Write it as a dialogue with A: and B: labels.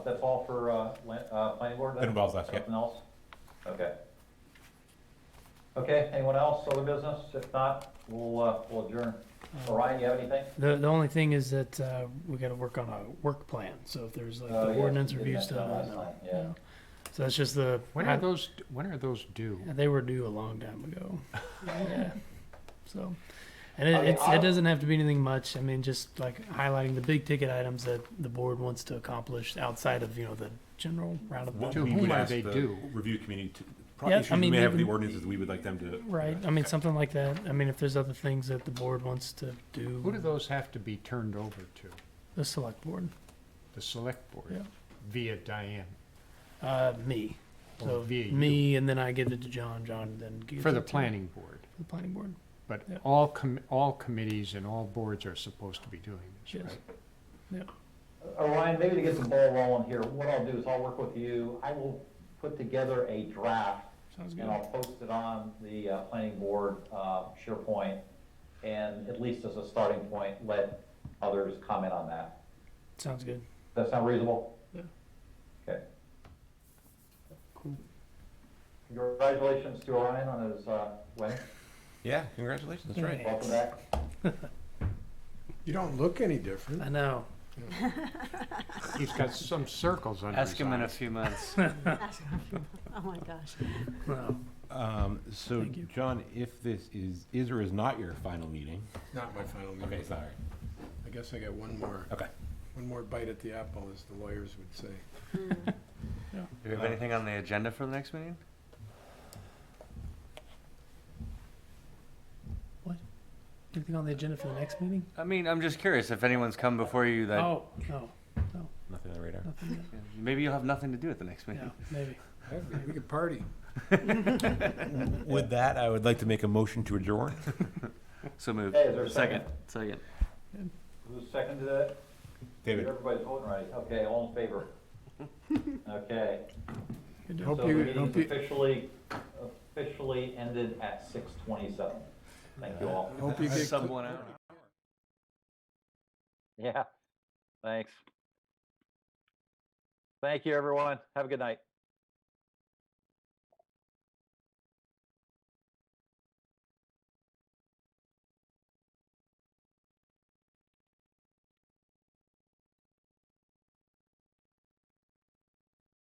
A: That's all for, uh, lan- uh, planning board then?
B: That involves us, yeah.
A: Nothing else? Okay. Okay, anyone else, other business? If not, we'll, uh, we'll adjourn.
C: Mm.
A: Orion, you have anything?
C: The, the only thing is that, uh, we gotta work on a work plan, so if there's like
A: Oh,
C: the
A: yeah,
C: ordinance
A: you did
C: review
A: mention
C: stuff,
A: that
C: I
A: last
C: know.
A: time, yeah.
C: yeah. So that's just the,
B: When are
C: I-
B: those, when are those due?
C: they were due a long time ago. Yeah, so, and it,
A: I mean,
C: it's,
A: I-
C: it doesn't have to be anything much, I mean, just like highlighting the big ticket items that the board wants to accomplish outside of, you know, the general roundabout.
B: To
D: we
B: whom
D: would
B: are
D: ask
B: they
D: the
B: due?
D: Review committee to,
C: Yeah,
D: probably
C: I
D: issues we
C: mean,
D: may have with the
C: even-
D: ordinances, we would like them to.
C: Right, I mean, something like that, I mean, if there's other things that the board wants to
B: Who do
C: do,
B: those have to be turned over to?
C: the select board,
B: The select board?
C: Yeah.
B: Via Diane?
C: uh, me.
B: or
C: So
B: via you?
C: me, and then I give it to John, John then gives
B: For
C: it
B: the
C: to-
B: planning board?
C: for the planning board.
B: But
C: Yeah.
B: all com, all committees and all boards are supposed to be doing this,
C: Yes.
B: right?
A: Orion, maybe to get the ball rolling here, what I'll do is I'll work with you. I will put together a draft
C: Sounds
A: and I'll post it on the uh, planning board uh, SharePoint. And at least as a starting point, let others comment on that.
C: Sounds good.
A: Does that sound reasonable?
C: Yeah.
A: Okay.
C: Cool.
A: Congratulations to Orion on his uh, win.
D: Yeah, congratulations,
C: that's right.
A: Welcome back.
E: You don't look any different.
C: I know.
B: He's got some circles under his eyes.
F: Ask him in a few months.
G: Oh my gosh.
C: Wow.
D: Um, so,
C: Thank you.
D: John, if this is, is or is not your final meeting?
E: Not my final
D: Okay,
E: meeting.
D: sorry.
E: I guess I got one more,
D: Okay.
E: one more bite at the apple, as the lawyers would say.
D: Hmm.
F: Do we have anything on the agenda for the next meeting?
C: Anything on the agenda for the next meeting?
F: I mean, I'm just curious if anyone's come before you that
C: Oh, no,
D: Nothing on the radar.
C: nothing yet.
F: maybe you'll have nothing to do at the next meeting.
C: Yeah, maybe.
E: We could party.
D: With that, I would like to make a motion to adjourn.
F: So move.
A: Hey, is there a second?
F: Second.
A: Who's second to that?
D: David.
A: Everybody's voting right. Okay, all in favor? Okay.
C: Good
E: Hope
A: So the
C: job.
E: you-
A: meeting's
E: hope you-
A: officially, officially ended at six twenty-seven. Thank you all.
E: Hope you get.
F: Sub one hour.
A: Yeah, thanks. Thank you, everyone. Have a good night.